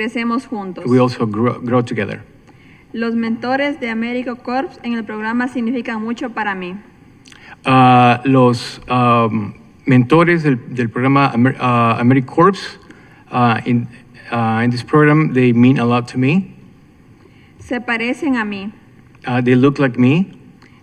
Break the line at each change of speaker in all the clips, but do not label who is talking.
Crecemos juntos.
we also grow, grow together.
Los mentores de America Corps en el programa significan mucho para mí.
Ah, los am, mentores del, del programa Amer, ah, AmeriCorps, ah, in, ah, in this program, they mean a lot to me.
Se parecen a mí.
Ah, they look like me.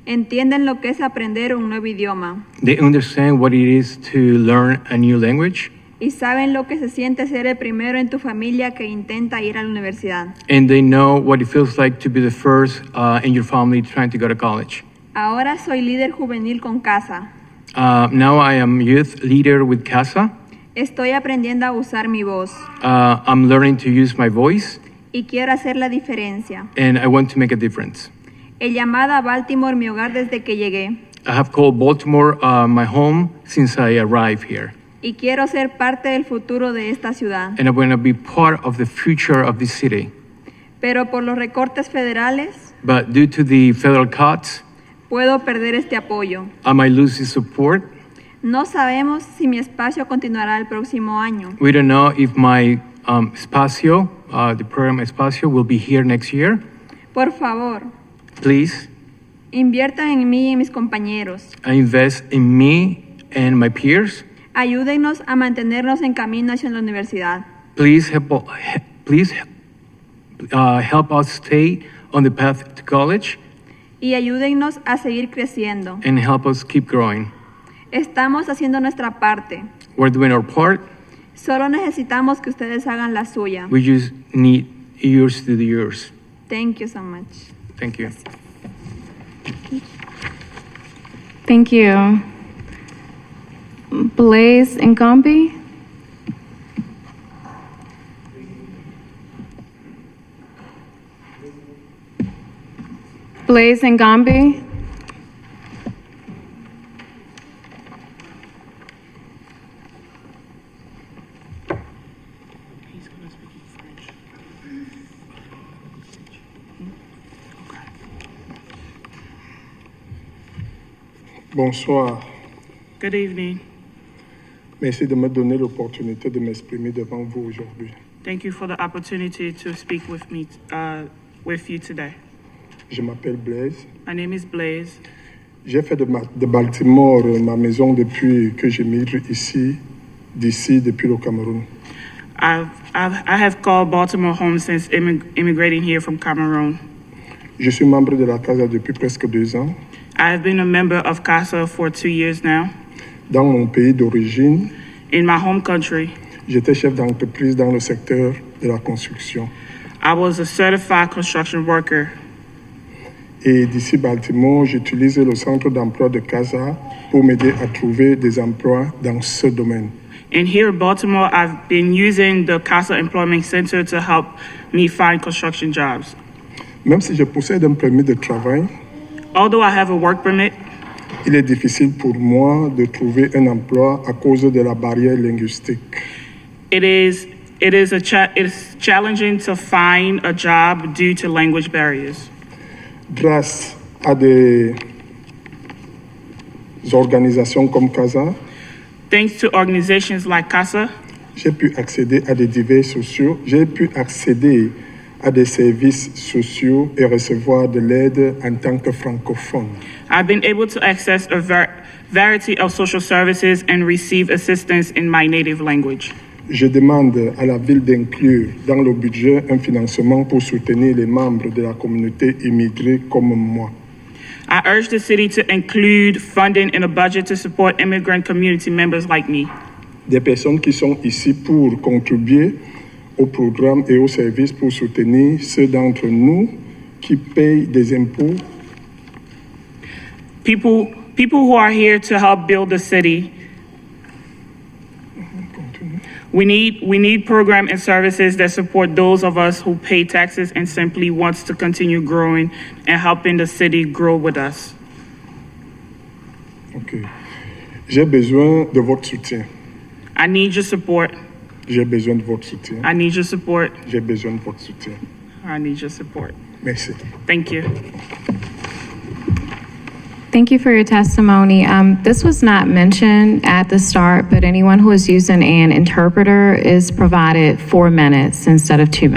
Entienden lo que es aprender un nuevo idioma
They understand what it is to learn a new language.
y saben lo que se siente ser el primero en tu familia que intenta ir a la universidad.
And they know what it feels like to be the first uh, in your family trying to go to college.
Ahora soy líder juvenil con casa.
Uh, now I am youth leader with CASA.
Estoy aprendiendo a usar mi voz
Uh, I'm learning to use my voice
y quiero hacer la diferencia.
and I want to make a difference.
He llamado a Baltimore mi hogar desde que llegué
I have called Baltimore uh, my home since I arrived here.
y quiero ser parte del futuro de esta ciudad.
And I'm going to be part of the future of this city.
Pero por los recortes federales
But due to the federal cuts,
puedo perder este apoyo.
I might lose this support.
No sabemos si mi espacio continuará el próximo año.
We don't know if my um, espacio, uh, the program espacio, will be here next year.
Por favor,
Please
inviertan en mí y en mis compañeros.
uh, invest in me and my peers.
Ayúdennos a mantenernos en camino hacia la universidad.
Please help, he- please uh, help us stay on the path to college
Y ayúdennos a seguir creciendo.
and help us keep growing.
Estamos haciendo nuestra parte.
We're doing our part.
Solo necesitamos que ustedes hagan la suya.
We just need yours to do yours.
Thank you so much.
Thank you.
Thank you. Blaze and Gombe? Blaze and Gombe?
Bonsoir.
Good evening.
Merci de me donner l'opportunité de m'exprimer devant vous aujourd'hui.
Thank you for the opportunity to speak with me, uh, with you today.
Je m'appelle Blaise.
My name is Blaze.
J'ai fait de, ma- de Baltimore euh, ma maison depuis que j'émigre ici, d'ici, depuis le Cameroun.
I've, I've, I have called Baltimore home since immig- immigrating here from Cameroon.
Je suis membre de la CASA depuis presque deux ans.
I have been a member of CASA for two years now.
Dans mon pays d'origine,
In my home country,
j'étais chef d'entreprise dans le secteur de la construction.
I was a certified construction worker.
Et d'ici Baltimore, j'utilise le centre d'emploi de CASA pour m'aider à trouver des emplois dans ce domaine.
And here in Baltimore, I've been using the CASA Employment Center to help me find construction jobs.
Même si je possède un permis de travail,
Although I have a work permit,
Il est difficile pour moi de trouver un emploi à cause de la barrière linguistique.
It is it is a cha- it's challenging to find a job due to language barriers.
Grâce à des organisations comme CASA,
Thanks to organizations like CASA,
j'ai pu accéder à des divers sociaux, j'ai pu accéder à des services sociaux et recevoir de l'aide en tant que francophone.
I've been able to access a var- variety of social services and receive assistance in my native language.
Je demande à la ville d'inclure dans le budget un financement pour soutenir les membres de la communauté immigrée comme moi.
I urge the city to include funding in a budget to support immigrant community members like me.
des personnes qui sont ici pour contribuer au programme et aux services pour soutenir ceux d'entre nous qui payent des impôts
People people who are here to help build the city. We need we need program and services that support those of us who pay taxes and simply wants to continue growing and helping the city grow with us.
Ok. J'ai besoin de votre soutien.
I need your support.
J'ai besoin de votre soutien.
I need your support.
J'ai besoin de votre soutien.
I need your support.
Merci.
Thank you.
Thank you for your testimony. Um, This was not mentioned at the start, but anyone who is using an interpreter is provided four minutes instead of two minutes.